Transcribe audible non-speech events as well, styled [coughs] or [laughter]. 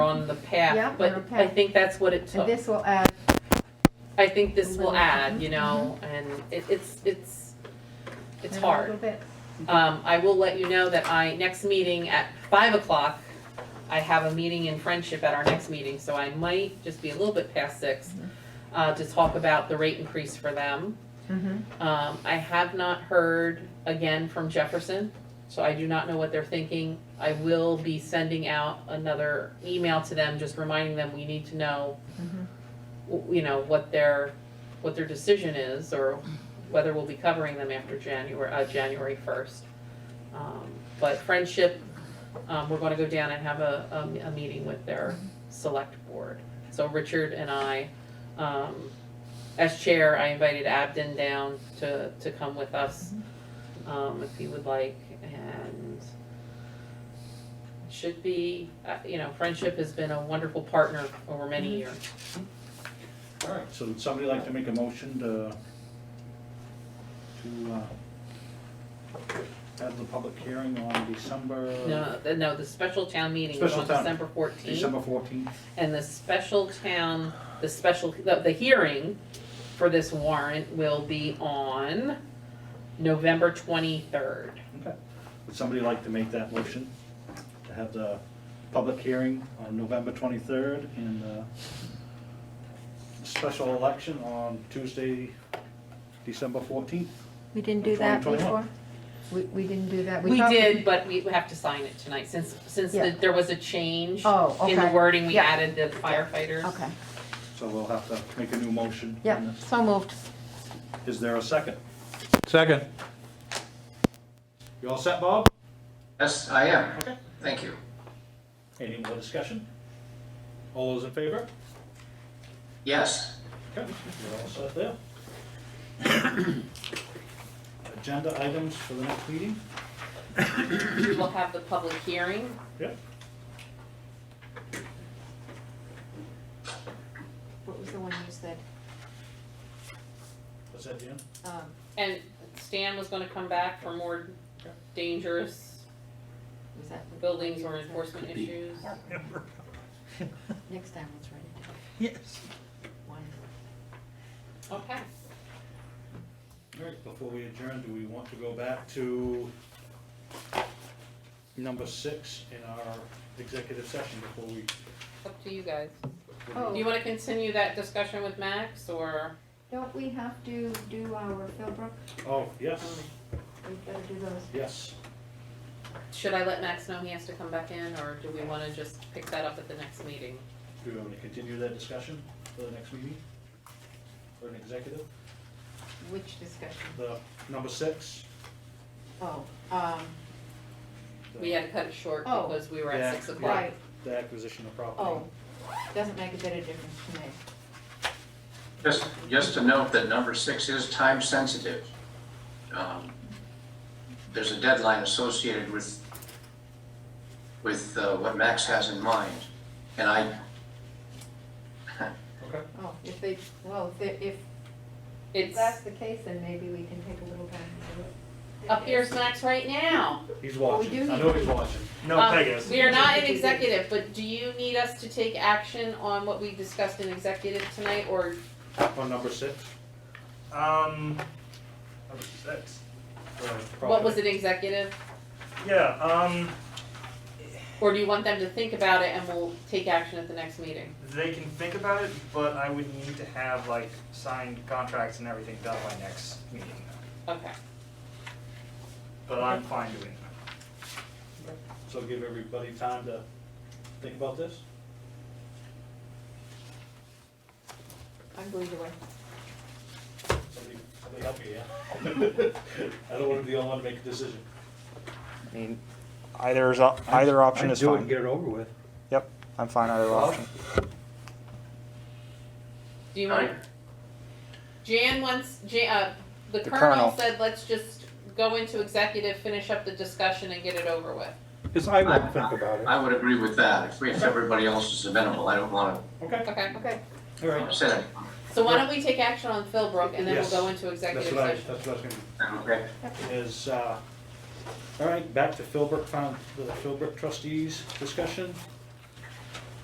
on the path, Yeah, but on the I path. think that's what it And took. this will add, I think this will Little- add, you know, Mm-hmm. and it, it's, it's, it's add a little hard. bit. Um, I will let you know that I, next meeting at five o'clock, I have a meeting in Friendship at our next meeting, so I might just be a little bit past six, Mm-hmm. uh, to talk about the rate increase for them. Mm-hmm. Mhm. Um, I have not heard again from Jefferson, so I do not know what they're thinking. I will be sending out another email to them, just reminding them we need to know, Mhm. w- you know, what their, what their decision is, or whether we'll be covering them after January, uh, January first. Um, but Friendship, um, we're gonna go down and have a, a, a meeting with their select board. So Richard and I, um, as chair, I invited Abden down to, to come with us, um, if he would like, and should be, uh, you know, Friendship has been a wonderful partner over Mm-hmm. many years. All right, so would somebody like to make a motion to, to, uh, have the public hearing on December? No, the- no, the special town meeting is Special on town. December fourteenth, December fourteenth? and the special town, the special, the, the hearing for this warrant will be on November twenty-third. Okay. Would somebody like to make that motion? To have the public hearing on November twenty-third and, uh, special election on Tuesday, December fourteenth? We didn't do that before? 2021. We, we didn't do that. We thought did, but we have to sign it tonight, since, since Yeah. the- there was a change. Oh, In the okay. wording, we Yeah. added the firefighters. [clears throat] Okay, So we'll have to make a new motion. on yeah, this. so moved. Is there a second? Second. You all set, Bob? Yes, I am. Thank you. Any more discussion? All those in favor? Yes. Okay, you're all set there. [coughs] Agenda items for the next meeting? We will have the public hearing, Yep. What was the one you said? What's that, Dan? Um, and Stan was gonna come back for more dangerous was that? the- buildings or enforcement issues. Next time, let's write it down. Yes. One. Okay. All right, before we adjourn, do we want to go back to number six in our executive session before we? Up to you guys. Oh. Do you wanna continue that discussion with Max, or? Don't we have to do our Philbrook? Oh, yes, We've got to do those. yes. Should I let Max know he has to come back in, or do we wanna just pick that up at the next meeting? Do we want to continue that discussion for the next meeting? For an executive, Which discussion? the number six? Oh, um, the- We had to cut it short Oh. because we were Yeah, at six yeah. o'clock. right, The acquisition of property. oh, doesn't make a bit of difference to me. Just, just to note that number six is time sensitive. Um, There's a deadline associated with, with uh, what Max has in mind. And I, Okay. Oh, if they, well, if, they- if if It's, that's the case, then maybe we can take a little time to do it. up here's Max right now. He's Well, we watching, do I need know to- he's watching. No, Um, Pegasus. We are not in executive, but do you need us to take action on what we discussed in executive tonight, or On number six? Um, number six. what was it executive? Yeah. Um, Or do you want them to think about it and we'll take action at the next meeting? they can think about it, but I would need to have like signed contracts and everything done by next meeting. Okay. But I'm fine doing that. So give everybody time to think about this? I'm going to wait. Somebody, somebody help me, yeah? [laughs] I don't wanna be the only one to make a decision. I mean, either is, either option is Do it and fine. get it over with. Yep, I'm fine either option. Do you want? Alright. Jan wants, Jan, uh, the The colonel colonel. said, let's just go into executive, finish up the discussion and get it over with. Because I will think about I would agree with that. If, if everybody else is amenable, I don't want Okay, Okay, Okay, all right. to say so why don't we take action on Philbrook and then we'll Yes. go into That's executive what I, session? that's what I was gonna that, okay? is, uh, all right, back to Philbrook Found, the Philbrook trustees discussion.